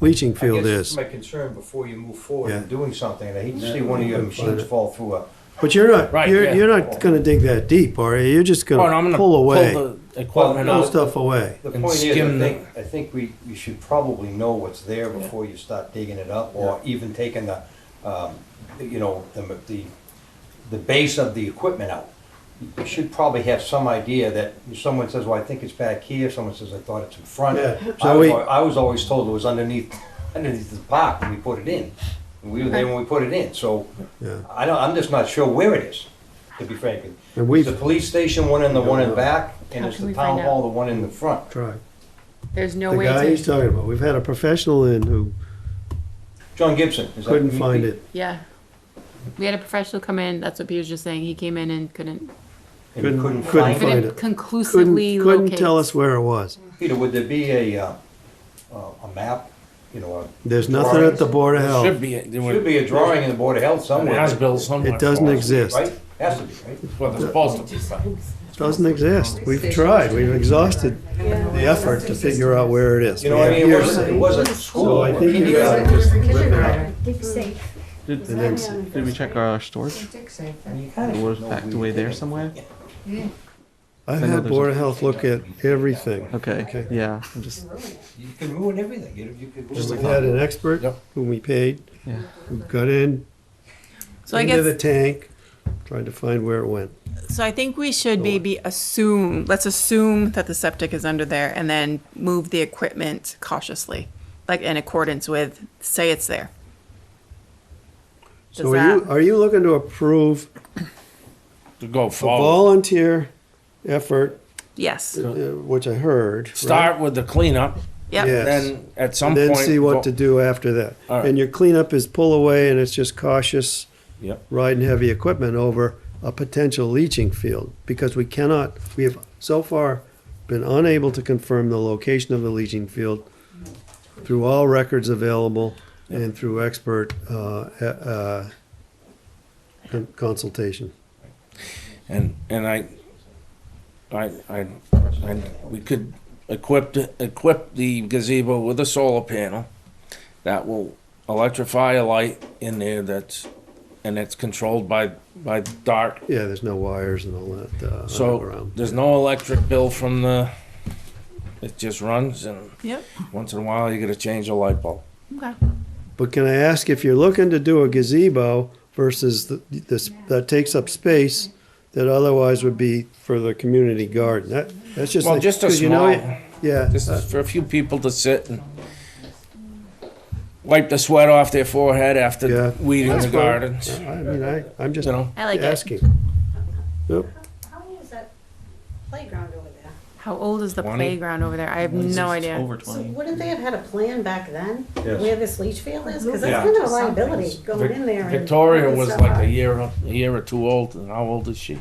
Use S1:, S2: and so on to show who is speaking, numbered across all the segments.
S1: leaching
S2: I guess
S1: field is.
S2: My concern before you move forward
S1: Yeah.
S2: in doing something, I hate to see one of your machines fall through Uh, a,
S1: But you're not,
S3: Right,
S1: you're,
S3: yeah.
S1: you're not gonna dig that deep, are you? You're just
S3: Oh, no, I'm
S1: gonna
S3: gonna
S1: pull away,
S3: Pull the equipment
S1: pull
S2: Well,
S3: out.
S1: stuff away.
S2: the
S3: And
S2: point is, I
S3: skim the-
S2: think, I think we, we should probably know what's there before you start digging it up, or even taking the, um, you know, the, the, the base of the equipment out. You should probably have some idea that if someone says, well, I think it's back here, someone says, I thought it's in front.
S1: Yeah,
S2: I
S1: so
S2: was,
S1: we-
S2: al- I was always told it was underneath, underneath the park when we put it in. And we were there when we put it in, so
S1: Yeah.
S2: I don't, I'm just not sure where it is, to be frank.
S1: And we've-
S2: It's the police station, one in the one in back, and
S4: How
S2: it's
S4: can
S2: the
S4: we
S2: town
S4: find out?
S2: hall, the one in the front.
S1: Try.
S4: There's no
S1: The
S4: way
S1: guy he's
S4: to,
S1: talking about, we've had a professional in who
S2: John Gibson. is that
S1: couldn't
S2: who you-
S1: find it,
S4: yeah. We had a professional come in, that's what Peter was just saying, he came in and couldn't,
S2: and you
S1: Couldn't-
S2: Couldn't
S1: couldn't
S2: find it.
S1: find
S4: couldn't
S1: it. Couldn't,
S4: conclusively
S1: couldn't
S4: locate.
S1: tell us where it was.
S2: Peter, would there be a, uh, uh, a map, you know, a-
S1: There's nothing at the Board of
S3: Should
S1: Health.
S3: be. It
S2: should be a drawing in the Board of Health
S3: It
S2: somewhere.
S3: has built somewhere.
S1: It doesn't
S3: for us.
S1: exist.
S2: Right? Has to be, right?
S3: Well, it's supposed to be. but-
S1: Doesn't exist. We've tried, we've exhausted the effort to figure out where it is.
S2: You know what I
S1: We
S2: mean? It
S1: have
S2: wasn't, it
S1: years.
S2: wasn't school.
S1: So I
S2: or
S1: think you
S2: kindergarten.
S1: gotta just
S5: Did,
S1: And then s-
S5: did we check our storage?
S2: I mean, you kinda
S5: It was
S2: should know
S5: packed
S2: where
S5: away
S2: you
S5: there
S2: pick it.
S5: somewhere?
S1: I've
S5: I know
S1: had
S5: there's
S1: Board
S5: a-
S1: of Health look at everything. Okay.
S5: Okay, yeah, I'm just,
S2: You can ruin everything. You you could
S1: Just
S2: ruin
S1: we had
S2: it.
S1: an expert
S3: Yep.
S1: whom we paid,
S5: yeah.
S1: who got in,
S6: So I
S1: into the
S6: guess,
S1: tank, tried to find where it went.
S6: so I think we should maybe assume, let's assume that the septic is under there and then move the equipment cautiously, like in accordance with, say it's there.
S1: So
S6: Does
S1: are you,
S6: that-
S1: are you looking to approve
S3: To go
S1: a
S3: forward.
S1: volunteer effort,
S6: Yes,
S1: uh, which I heard? right?
S3: Start with the cleanup.
S1: Yeah.
S6: yep,
S1: Yes.
S3: Then at some
S1: And then
S3: point.
S1: see
S3: vo-
S1: what to do after that.
S3: All right.
S1: And your cleanup is pull away and it's just cautious
S3: Yep.
S1: riding heavy equipment over a potential leaching field because we cannot, we have so far been unable to confirm the location of the leaching field through all records available and through expert uh, e- uh, con- consultation.
S3: And, and I, I, I, I, we could equip, the- equip the gazebo with a solar panel that will electrify a light in there that's, and it's controlled by, by dark.
S1: Yeah, there's no wires and all that uh,
S3: So
S1: around.
S3: there's no electric bill from the, it just runs and
S6: yep,
S3: once in a while you gotta change a light bulb.
S6: okay.
S1: But can I ask if you're looking to do a gazebo versus the, this, that takes up space that otherwise would be for the community garden? That, that's just.
S3: Well,
S1: like-
S3: just a
S1: 'cause you know
S3: small-
S1: it- Yeah,
S3: This is for a few people to sit and wipe the sweat off their forehead
S1: Yeah.
S3: after weeding the gardens,
S1: I mean, I, I'm just
S3: you know?
S4: I like it.
S1: asking.
S7: How many is that playground over there?
S4: How old is the
S3: 20?
S4: playground over there? I have no idea.
S5: Over
S7: So
S5: twenty.
S7: wouldn't they have had a plan back then?
S2: Yes.
S7: Where this leach field is? Because
S2: Yeah.
S7: that's kind of a liability going in there. and
S3: Victoria
S7: putting
S3: was
S7: stuff
S3: like
S7: up.
S3: a year, a year or two old, and how old is she?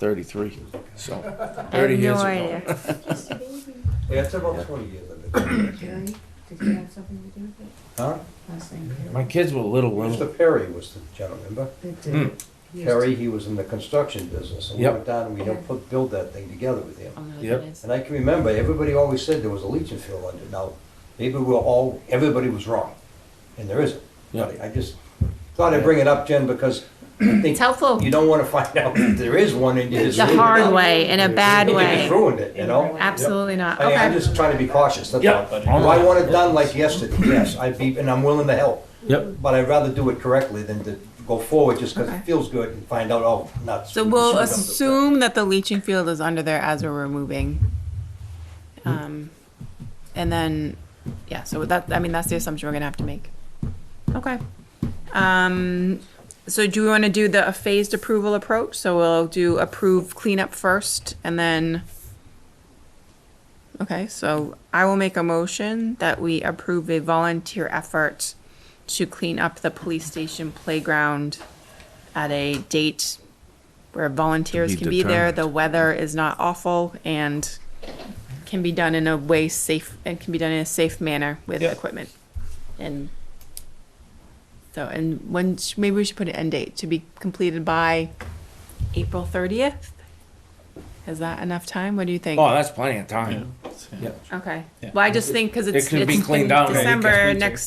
S3: Thirty-three, so
S4: I
S3: thirty
S4: have
S3: years
S4: no
S3: ago.
S4: idea.
S2: Yeah, it's about twenty years of it. Huh?
S3: My kids were little, little,
S2: Mr. Perry was the gentleman, remember?
S3: Hmm.
S2: Perry, he was in the construction business. And we
S3: Yep.
S2: went down and we helped put, build that thing together with him.
S4: Oh, no,
S3: Yep.
S4: it is.
S2: And I can remember, everybody always said there was a leaching field under it. Now, maybe we're all, everybody was wrong, and there isn't. But I just thought I'd bring it up, Jen, because I think
S4: It's helpful,
S2: you don't want to find out that there is one and you just
S4: the
S2: ruined it.
S4: hard way, in a bad
S2: You just
S4: way.
S2: ruined it, you know?
S4: Absolutely not,
S2: I, I'm
S4: okay.
S2: just trying to be cautious, that's
S3: Yep.
S2: all. Do I want it done like yesterday? Yes, I'd be, and I'm willing to help.
S3: Yep.
S2: But I'd rather do it correctly than to go forward just because
S6: Okay.
S2: it feels good and find out, oh, not.
S6: So we'll assume that the leaching field is under there as we're removing. Um, and then, yeah, so that, I mean, that's the assumption we're gonna have to make. Okay. Um, so do we wanna do the phased approval approach? So we'll do approve cleanup first and then. Okay, so I will make a motion that we approve a volunteer effort to clean up the police station playground at a date where volunteers
S3: Be
S6: can be there, the weather is not awful, and can be done in a way safe, and can be done in a safe manner with
S3: Yeah.
S6: equipment. And so, and when, sh- maybe we should put an end date to be completed by April thirtieth? Is that enough time? What do you think? Oh,
S3: Oh, that's plenty of time. built. yeah.
S6: Yep.
S8: Okay.
S3: Yeah.
S8: Well, I just think because it's,
S6: could be
S8: it's in
S6: cleaned out and it gets
S8: December
S3: maintained.
S8: next